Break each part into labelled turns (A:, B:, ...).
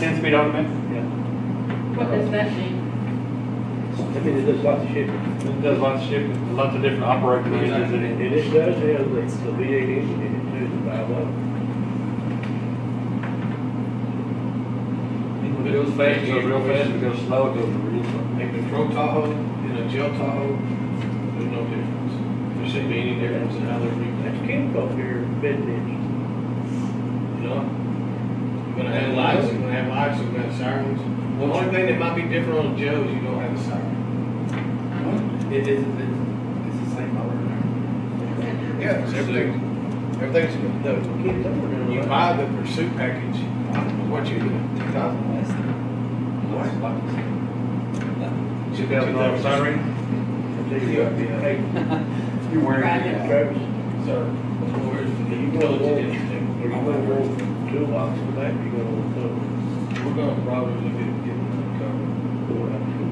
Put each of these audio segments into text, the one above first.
A: ten speed augment,
B: What does that mean?
C: I mean, it does lots of shit.
A: it does lots of shipping, lots of different operating regions in it.
C: And it does have the, the V eight engine in it too, the five one.
A: If it goes fast, it goes real fast, if it goes slow, it goes real slow.
D: A control Tahoe and a gel Tahoe, there's no difference. There shouldn't be any difference in how they're
C: That's
D: repackaged,
C: Kimco here, bed engine.
D: you know? You're gonna have lights, you're gonna have lights, you're gonna have sirens. The only thing that might be different on a Joe's, you don't have a siren.
E: It is, it's, it's the same motor.
D: Yeah, everything, everything's, no,
C: Kids over there.
D: you
C: right?
D: buy the pursuit package, what you get, two thousand less.
A: Two thousand dollar siren,
C: They got the- Hey,
E: You're
B: Right.
C: Travis,
D: Sir, where's the
C: you gonna
D: utility
C: want,
D: district?
C: are you gonna want two blocks of that, you gonna want some.
D: We're gonna probably look at getting covered.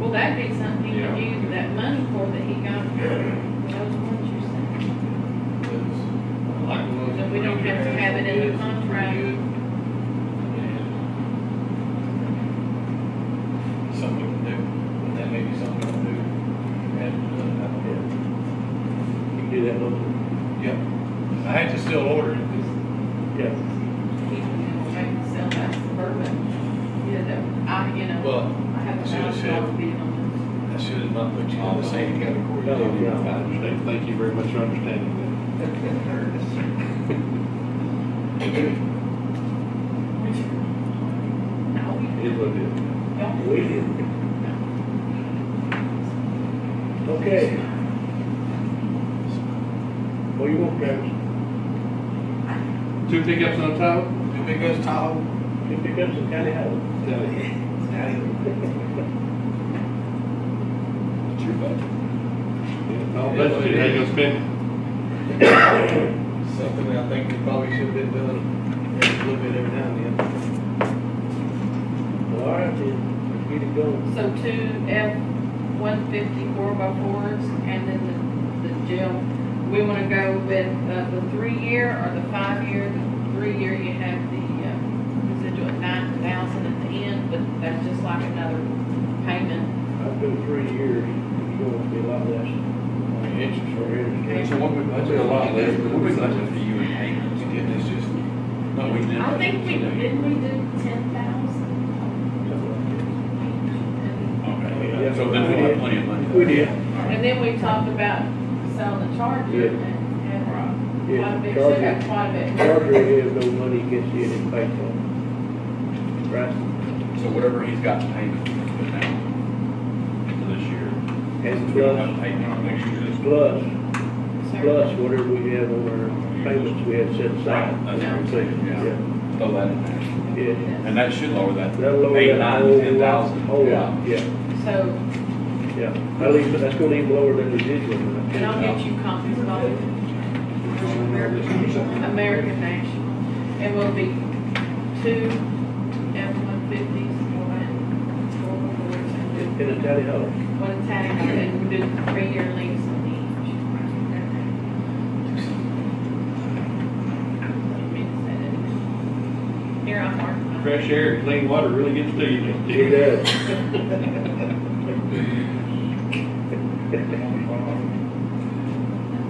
B: Well, that'd be something you could use that money for that he got for those ones you sent. So we don't have to have it in the contract.
D: Something to do, and that may be something to do. And,
C: You do that one.
D: uh, yeah, I had to still order it, 'cause
C: Yeah.
B: He can make himself that suburban, you know, I, you know,
D: Well,
B: I have a
D: should have
B: thousand
D: said-
B: dollar bid on
D: I should have not put you in the same category.
C: No,
A: I
C: no.
A: understand, thank you very much for understanding
B: this. No, we
A: that. It is what it is.
B: don't.
C: We did. Okay. What you want, Travis?
A: Two pickups on top?
D: Two big ass Tahoe.
C: You pick up some county house?
A: Tell you. It's your budget. All budget, how you gonna spend?
D: Something that I think we probably should have been doing a little bit every now and then.
C: All right, then, let's get it going.
B: So two F one fifty four by fours and then the, the jail. We wanna go with, uh, the three-year or the five-year? The Three-year you have the, uh, residual at nine thousand at the end, but that's just like another payment.
C: I've been three years, it's going to be a lot less.
D: I mean, interest
C: for
D: rate.
B: Okay.
E: So what we budget,
A: a lot less, but
E: what we
A: it's not-
E: budget for you and Hank?
D: We did this just, no, we didn't.
B: I think we, didn't we do ten thousand?
E: Okay,
C: Yeah.
E: so then we have plenty of money.
C: We did.
B: And then we talked about selling the Charger and, and quite a
C: Yeah,
B: bit, should have
C: Charger,
B: quite a bit.
C: Charger has no money against it in pays on. Right?
E: So whatever he's got to pay for now, for this year.
C: And
E: We don't have
C: plus,
E: to pay now next year.
C: plus,
B: So-
C: plus whatever we have on our payments we have set aside.
E: Right, that's what I'm saying, yeah. Throw that in there.
C: Yeah, yeah.
E: And that should lower that.
C: That'll lower
E: Eight,
C: that
E: nine,
C: whole
E: ten
C: lot,
E: thousand.
C: whole
E: Yeah.
C: lot, yeah,
B: So,
C: yeah. That'll even, that's gonna even lower than the digital. amount.
B: And I'll get you copies of all of it. American National. It will be two F-150s, one, four, four,
C: In
B: two,
C: in a tally hole.
B: one tag, and we do three year lease on each. I didn't mean to say that. Here, I'm marking.
A: Fresh air, and clean water really gets to you. don't
C: It
A: it?
C: does.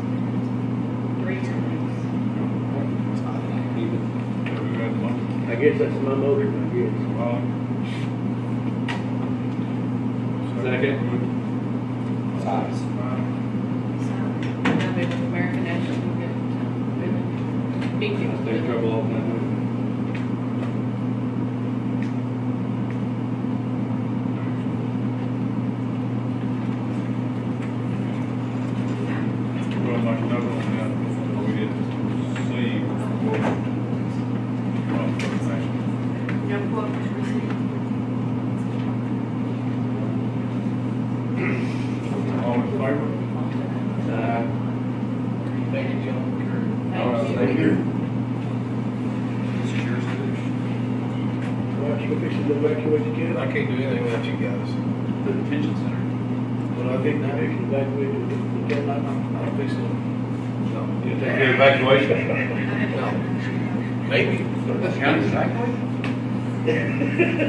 B: Three year lease.
C: I guess that's my motive, I guess.
A: Second,
E: Size.
B: So, and I'll be with American National, we'll get, um, big
A: I
B: deal.
A: stay in trouble all the time.
F: Well, like another one that we didn't see before. Well, for example,
B: No quote was received.
F: All in favor?
A: Uh,
D: Thank you, John.
B: Thank you.
E: This is yours, too.
C: Why don't you fix it, go back to what you did?
D: I can't do anything without you guys.
E: The detention center.
C: But I think now, fix it back to what you did, you
D: I'm,
C: cannot.
D: I'm fixing
A: you take care of evacuation.
D: it. Maybe.
E: County, exactly.